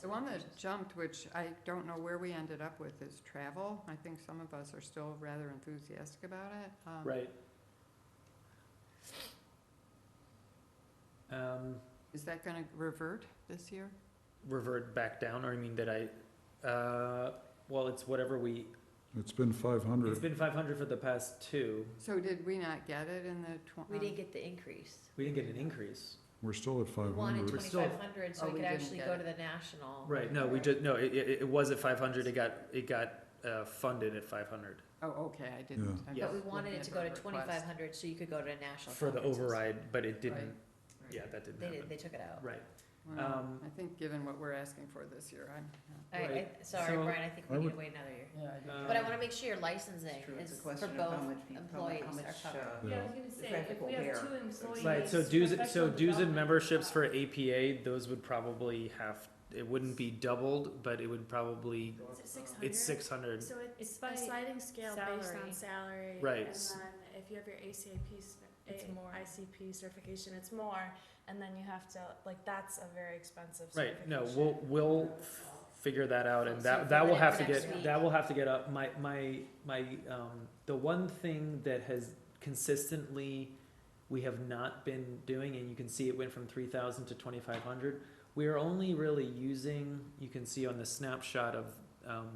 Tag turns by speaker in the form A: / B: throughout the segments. A: The one that jumped, which I don't know where we ended up with, is travel. I think some of us are still rather enthusiastic about it. Um,
B: Right. Um,
A: Is that gonna revert this year?
B: revert back down, or I mean, did I, uh, well, it's whatever we,
C: It's been five
B: it's
C: hundred.
B: been five hundred for the past two.
A: So did we not get it in the tw-
D: We
A: um,
D: didn't get the increase.
B: We didn't get an increase.
C: We're still at
D: We
C: five
D: wanted
B: We're
C: hundred.
B: still-
D: twenty-five hundred, so
A: Oh,
D: we
A: we
D: could
A: didn't
D: actually
A: get
D: go
A: it.
D: to the national.
B: Right, no, we
D: Correct.
B: just, no, it, it, it was at five hundred, it got, it got, uh, funded at five hundred.
A: Oh, okay, I didn't.
C: Yeah.
A: I
B: Yes.
D: But we
A: was
D: wanted
A: looking
D: it
A: at
D: to go to
A: the request.
D: twenty-five hundred, so you could go to national.
B: For the
D: conferences.
B: override, but it didn't,
A: Right.
D: Right.
B: yeah, that didn't
D: They did,
B: happen.
D: they took it out.
B: Right,
A: Well,
B: Um,
A: I think given what we're asking for this year, I'm,
D: I, I,
B: Right.
D: sorry,
B: So-
D: Brian, I think
C: I
D: we need
C: would-
D: to wait another year.
A: yeah.
B: Uh,
D: But I wanna make sure your licensing
E: True, it's
D: is
E: a
D: for
E: question of how
D: both
E: much people- how
D: employees
E: much,
D: are covered.
E: uh,
C: Yeah.
F: Yeah, I was gonna say, if
E: Graphical
F: we have
E: bear.
F: two employees.
B: right, so dues, so dues
F: professional
B: and
F: development
B: memberships
F: is
B: for
F: up.
B: APA, those would probably have, it wouldn't be doubled, but it would probably,
E: Is it
B: it's six hundred.
G: So
F: It's
G: it's
F: by
G: a sliding scale based
F: salary.
G: on salary.
B: Right.
G: And then if you have your ACAP, cert-
F: It's
G: A-
F: more.
G: ICP certification, it's more, and then you have to, like, that's a very expensive
B: Right,
G: certification.
B: no, we'll, we'll f- figure that out and
D: So
B: that,
D: if
B: that
D: we
B: will
D: let it
B: have to
D: for next
B: get,
D: week.
B: that will have to get up, my, my, my, um, the one thing that has consistently, we have not been doing, and you can see it went from three thousand to twenty-five hundred, we are only really using, you can see on the snapshot of, um,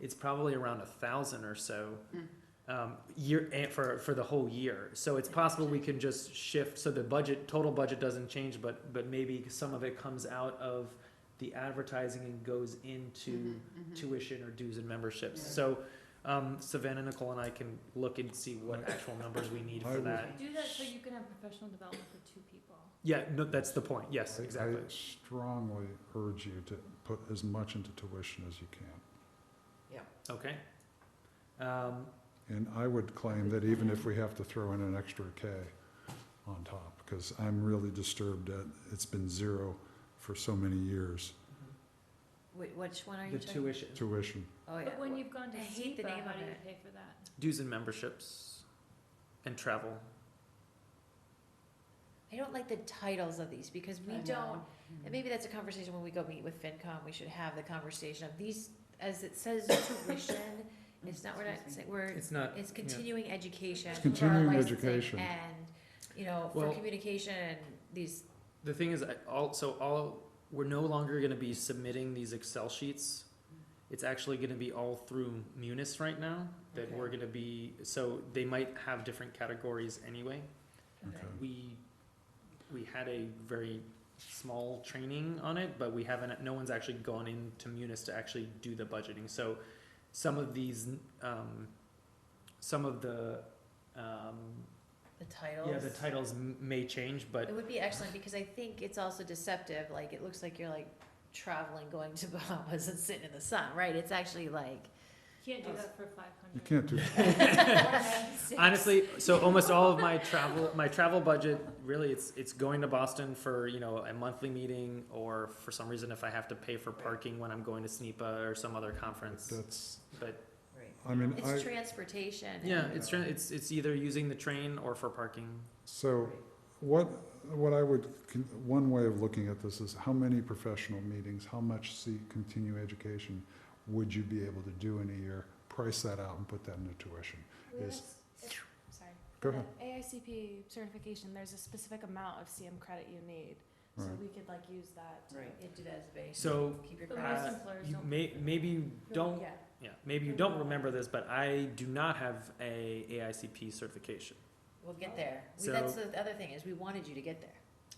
B: it's probably around a thousand or so,
A: Mm.
B: um, year, and for, for the whole year, so it's possible we can just shift, so the budget, total budget doesn't change, but, but maybe some of it comes out of the advertising and goes into
D: Mm-hmm.
A: Mhm, mhm.
B: tuition or dues and memberships.
A: Yeah.
B: So um, Savannah, Nicole, and I can look and see what actual numbers we need
C: I
B: for
C: would-
B: that.
F: Do that so you can have professional development for two people.
B: Yeah, no, that's the point. Yes,
C: I-
B: exactly.
C: I strongly urge you to put as much into tuition as you can.
B: Okay. Um,
C: And I would claim that even if we have to throw in an extra K on top, because I'm really disturbed that it's been zero for so many years,
D: Wait, which one are you
B: the
D: talking?
B: tuition,
C: tuition.
D: Oh, yeah.
F: But when you've gone to
D: I hate the
F: SEPA,
D: name
F: how
D: of
F: do you
D: it.
F: pay for that?
B: dues and memberships, and travel.
D: I don't like the titles of these, because we
A: I
D: don't,
A: know. Mm-hmm.
D: and maybe that's a conversation when we go meet with FinCom, we should have the conversation of these, as it says tuition, it's not, we're not,
E: Excuse me.
D: saying- we're
B: It's not.
D: It's
B: yeah.
D: continuing education.
C: It's
D: for our
C: continuing
D: licensing
C: education.
D: And, you know, for
B: Well-
D: communication and these,
B: The thing is, I, all, so all, we're no longer gonna be submitting these Excel sheets. It's actually gonna be all through Munis right now, that
D: Okay.
B: we're gonna be, so they might have different categories anyway.
C: Okay.
B: We, we had a very small training on it, but we haven't, no one's actually gone into Munis to actually do the budgeting, so some of these, um, some of the, um,
D: the titles.
B: yeah, the titles m- may change, but
D: It would be excellent, because I think it's also deceptive, like, it looks like you're like traveling, going to Bahamas and sitting in the sun, right? It's actually like,
F: Can't do that for five
C: You
F: hundred.
C: can't do,
B: Honestly, so almost all of my travel, my travel budget, really, it's it's going to Boston for you know a monthly meeting, or for some reason if I have to pay for parking when I'm going to SNEPA or some other conference.
C: that's,
B: But
E: Right.
C: I mean,
D: it's
C: I,
D: transportation. and-
B: yeah, it's tra- it's it's either using the train or for parking.
C: so what, what I would, con- one way of looking at this is how many professional meetings, how much see, continue education would you be able to do in a year? Price that out and put that into tuition.
G: Well,
C: Yes.
G: that's- if- Sorry.
C: Go
G: The
C: ahead.
G: AICP certification, there's a specific amount of CM credit you need, so
C: Right.
G: we could like use that to.
E: Right.
D: You do that as a base.
B: So,
D: Keep your
F: But
D: credits.
F: most
B: Uh,
F: employers
B: You
F: don't.
B: may maybe you don't
G: Yeah.
B: yeah maybe you don't remember this, but I do not have a AICP certification.
D: We'll get there. We-
B: So-
D: That's the other thing, is we wanted you to get there.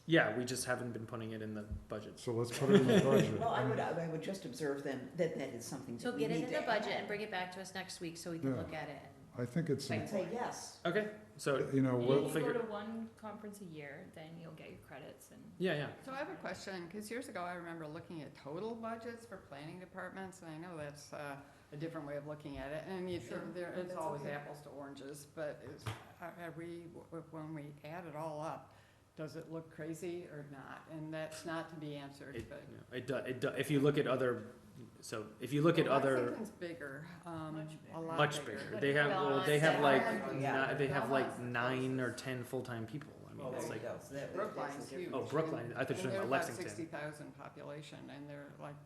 B: Yeah, we just haven't been putting it in the budget.
C: So let's put it in the budget.
E: Well, I would, uh, I would just observe then that that is something
D: So
E: that we
D: get it
E: need
D: in
E: to
D: the budget
E: add.
D: and bring it back to us next week, so we can
C: Yeah.
D: look at it and
C: I think it's,
E: And say yes.
B: Okay, so
C: you know,
F: And
B: we'll
C: what,
F: if you
B: figure-
F: go to one conference a year, then you'll get your credits and.
B: yeah yeah.
A: So I have a question, because years ago, I remember looking at total budgets for planning departments, and I know that's uh, a different way of looking at it, and you,
E: Sure.
A: there, it's
E: That's
A: always
E: okay.
A: apples to oranges, but is, are are we, w- when we add it all up, does it look crazy or not? And that's not to be answered,
B: It,
A: but.
B: yeah, it do, it do, if you look at other, so if you look at
A: Well,
B: other,
A: Lexington's bigger, um,
E: Much
A: a lot
B: much
A: bigger.
B: bigger, they have, well, they have like,
E: Yeah.
B: ni- they have like
A: Belmont's the
B: nine or
A: closest.
B: ten full-time people, I mean,
E: Well,
B: it's
E: there
B: like,
E: you go. So that- that's the
A: Brookline's
E: difference.
A: huge.
B: oh, Brookline, I thought you were talking
A: And
B: about
A: they're about sixty
B: Lexington.
A: thousand population, and they're like